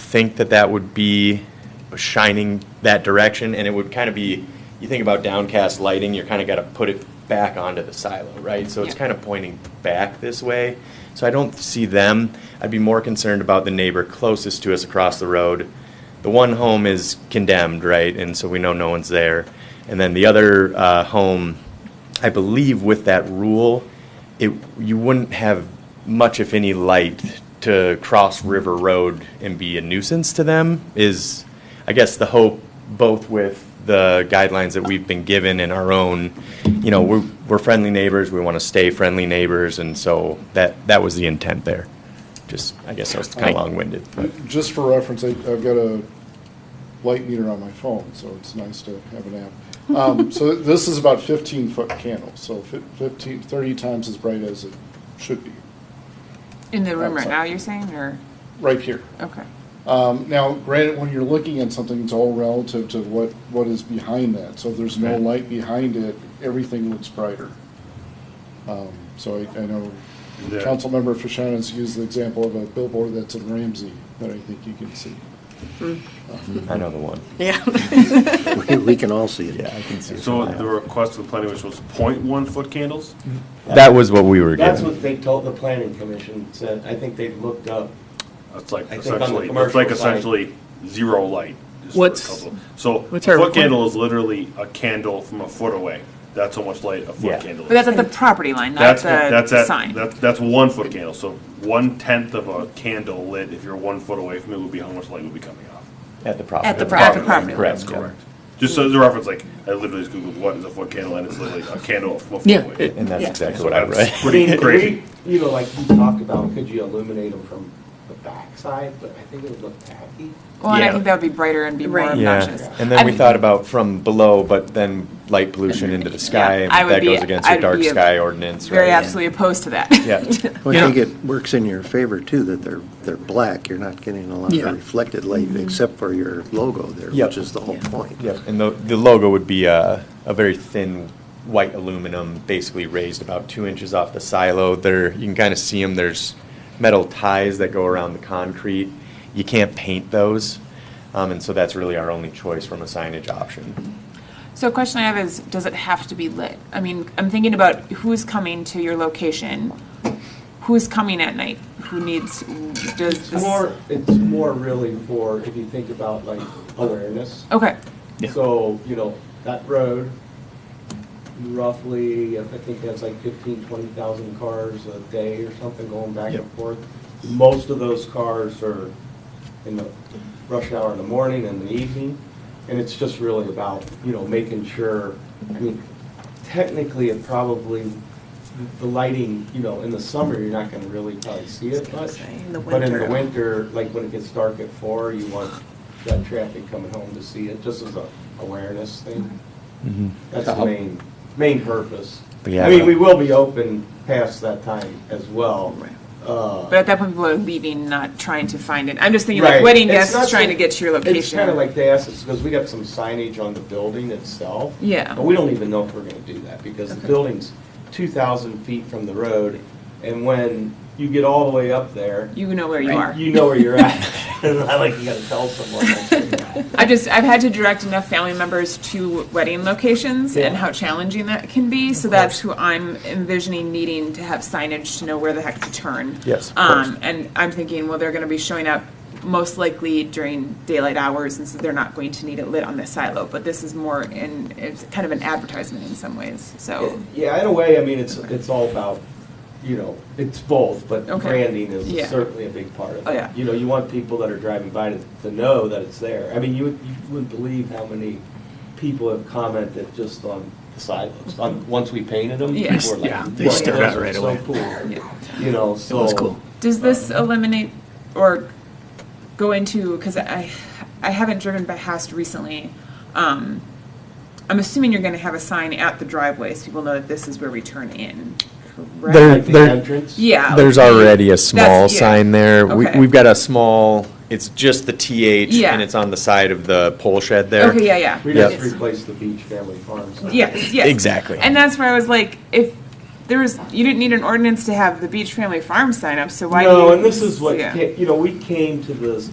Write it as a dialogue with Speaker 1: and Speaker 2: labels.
Speaker 1: think that that would be shining that direction, and it would kind of be, you think about downcast lighting, you're kind of got to put it back onto the silo, right? So it's
Speaker 2: Yeah.
Speaker 1: kind of pointing back this way. So I don't see them. I'd be more concerned about the neighbor closest to us across the road. The one home is condemned, right, and so we know no one's there. And then the other uh, home, I believe with that rule, it, you wouldn't have much, if any, light to cross River Road and be a nuisance to them is, I guess, the hope, both with the guidelines that we've been given and our own, you know, we're, we're friendly neighbors, we want to stay friendly neighbors, and so that, that was the intent there. Just, I guess I was kind of long-winded. but-
Speaker 3: Just for reference, I- I've got a light meter on my phone, so it's nice to have an app. Um, So this is about 15-foot candle, so fif- 15, 30 times as bright as it should be,
Speaker 2: In the room right now, you're saying, or,
Speaker 3: right here.
Speaker 2: okay.
Speaker 3: Um, Now, granted, when you're looking at something, it's all relative to what, what is behind that. So if there's no
Speaker 1: Right.
Speaker 3: light behind it, everything looks brighter. Um, So I, I know
Speaker 4: Yeah.
Speaker 3: Councilmember Fashan has used the example of a billboard that's in Ramsey that I think you can see.
Speaker 1: I know the one.
Speaker 5: Yeah.
Speaker 6: We- We can all see it.
Speaker 1: Yeah, I can see it.
Speaker 4: So
Speaker 1: from my
Speaker 4: the
Speaker 1: house.
Speaker 4: request of the planning commission was point one foot candles?
Speaker 1: That was what we were
Speaker 7: That's
Speaker 1: given.
Speaker 7: what they told the planning commission, said, I think they looked up,
Speaker 4: It's like
Speaker 7: I think on the
Speaker 4: essentially, it's
Speaker 7: commercial
Speaker 4: like
Speaker 7: side-
Speaker 4: essentially zero light. just for a
Speaker 5: What's-
Speaker 4: couple. So a
Speaker 5: what's our
Speaker 4: foot
Speaker 5: requirement?
Speaker 4: candle is literally a candle from a foot away. That's how much light a
Speaker 1: Yeah.
Speaker 4: foot candle is.
Speaker 2: But that's at the property line, not
Speaker 4: That's,
Speaker 2: the
Speaker 4: that's,
Speaker 2: the
Speaker 4: at-
Speaker 2: sign.
Speaker 4: that's, that's one foot candle, so one tenth of a candle lit, if you're one foot away from it, would be how much light would be coming off.
Speaker 1: At the property.
Speaker 2: At the
Speaker 1: line.
Speaker 2: pro- property
Speaker 4: line,
Speaker 2: line.
Speaker 4: That's
Speaker 1: Correct, yeah.
Speaker 4: correct. Just so as a reference, like, I literally just Googled what is a foot candle, and it's literally a candle from a foot
Speaker 5: Yeah,
Speaker 4: away.
Speaker 5: it-
Speaker 1: And that's
Speaker 5: Yeah.
Speaker 1: exactly
Speaker 4: So
Speaker 1: what I
Speaker 4: that's
Speaker 1: read.
Speaker 7: I
Speaker 4: Pretty
Speaker 7: mean,
Speaker 4: crazy.
Speaker 7: we, you know, like you talked about, could you illuminate them from the backside, but I think it would look tacky.
Speaker 2: Well, and I
Speaker 1: Yeah.
Speaker 2: think that would be brighter and be more
Speaker 5: Right.
Speaker 2: obnoxious.
Speaker 1: Yeah, and then we
Speaker 2: I'm-
Speaker 1: thought about from below, but then light pollution into the sky, and
Speaker 2: I would
Speaker 1: that
Speaker 2: be-
Speaker 1: goes against the
Speaker 2: I'd
Speaker 1: dark
Speaker 2: be
Speaker 1: sky ordinance,
Speaker 2: Very
Speaker 1: right?
Speaker 2: absolutely opposed to that.
Speaker 1: Yeah.
Speaker 6: Well, I think it works in your favor too, that they're, they're black. You're not getting a lot
Speaker 5: Yeah.
Speaker 6: of reflected light except for your logo there,
Speaker 1: Mm-hmm. Yep.
Speaker 6: which is the whole point.
Speaker 1: Yeah, and the, the logo would be a, a very thin white aluminum, basically raised about two inches off the silo. There, you can kind of see them, there's metal ties that go around the concrete. You can't paint those, um, and so that's really our only choice from a signage option.
Speaker 2: So a question I have is, does it have to be lit? I mean, I'm thinking about who's coming to your location, who's coming at night, who needs, does
Speaker 7: It's
Speaker 2: this?
Speaker 7: more, it's more really for, if you think about like awareness.
Speaker 2: Okay,
Speaker 7: So, you know, that road, roughly, I think that's like fifteen, twenty thousand cars a day or something going back and forth. Most of those cars are in the rush hour in the morning and the evening, and it's just really about, you know, making sure, I mean, technically, it probably, the lighting, you know, in the summer, you're not gonna really probably see it much.
Speaker 5: In the
Speaker 7: But in the
Speaker 5: winter.
Speaker 7: winter, like when it gets dark at four, you want that traffic coming home to see it, just as a awareness thing. That's the main, main purpose.
Speaker 1: But yeah,
Speaker 7: I mean,
Speaker 1: but-
Speaker 7: we will be open past that time as well. Uh,
Speaker 2: but at that point, people are leaving, not trying to find it. I'm just thinking like
Speaker 7: Right.
Speaker 2: wedding
Speaker 7: It's not
Speaker 2: guests trying
Speaker 7: so-
Speaker 2: to get to your location.
Speaker 7: It's kind of like they asked us, because we got some signage on the building itself.
Speaker 2: Yeah.
Speaker 7: But we don't even know if we're gonna do that, because the
Speaker 2: Okay.
Speaker 7: building's two thousand feet from the road, and when you get all the way up there,
Speaker 2: You know where you
Speaker 7: you-
Speaker 2: are.
Speaker 7: you know where you're at. I like, you gotta tell someone. that's where you're at.
Speaker 2: I just I've had to direct enough family members to wedding locations
Speaker 7: Yeah.
Speaker 2: and how challenging that can be. So that's who I'm envisioning needing to have signage to know where the heck to turn.
Speaker 1: Yes, of
Speaker 2: Um,
Speaker 1: course.
Speaker 2: and I'm thinking, well, they're going to be showing up most likely during daylight hours, and so they're not going to need it lit on the silo. But this is more in it's kind of an advertisement in some ways. So
Speaker 7: Yeah, in a way, I mean, it's, it's all about, you know, it's both, but
Speaker 2: Okay.
Speaker 7: branding is
Speaker 2: Yeah.
Speaker 7: certainly a big part of it.
Speaker 2: Oh, yeah.
Speaker 7: You know, you want people that are driving by to, to know that it's there. I mean, you, would- you wouldn't believe how many people have commented just on the silos, on, once we painted them.
Speaker 2: Yes,
Speaker 7: people were like,
Speaker 6: yeah, they
Speaker 7: "Wow,
Speaker 6: stood
Speaker 7: those
Speaker 6: out
Speaker 7: are
Speaker 6: right
Speaker 7: so
Speaker 6: away."
Speaker 7: cool."
Speaker 2: Yeah.
Speaker 7: You know, so.
Speaker 6: cool.
Speaker 2: does this eliminate or go into because I I haven't driven by past recently. Um, I'm assuming you're going to have a sign at the driveway so people know that this is where we turn in. Correct?
Speaker 1: There-
Speaker 7: Like the
Speaker 1: They're-
Speaker 7: entrance.
Speaker 2: yeah.
Speaker 1: There's
Speaker 2: like-
Speaker 1: already a
Speaker 2: that's-
Speaker 1: small
Speaker 2: yeah.
Speaker 1: sign there. We,
Speaker 2: Okay.
Speaker 1: we've got a small, it's just the TH,
Speaker 2: Yeah.
Speaker 1: and it's on the side of the pole shed there.
Speaker 2: Okay. Yeah. Yeah.
Speaker 7: We
Speaker 1: Yep.
Speaker 7: just replaced the beach family farms.
Speaker 2: Yes, yes.
Speaker 1: Exactly.
Speaker 2: And that's where I was like, if there was, you didn't need an ordinance to have the Beach Family Farm sign up, so why? do
Speaker 7: no,
Speaker 2: you-
Speaker 7: and this is what
Speaker 2: yeah.
Speaker 7: ca- you know. We came to this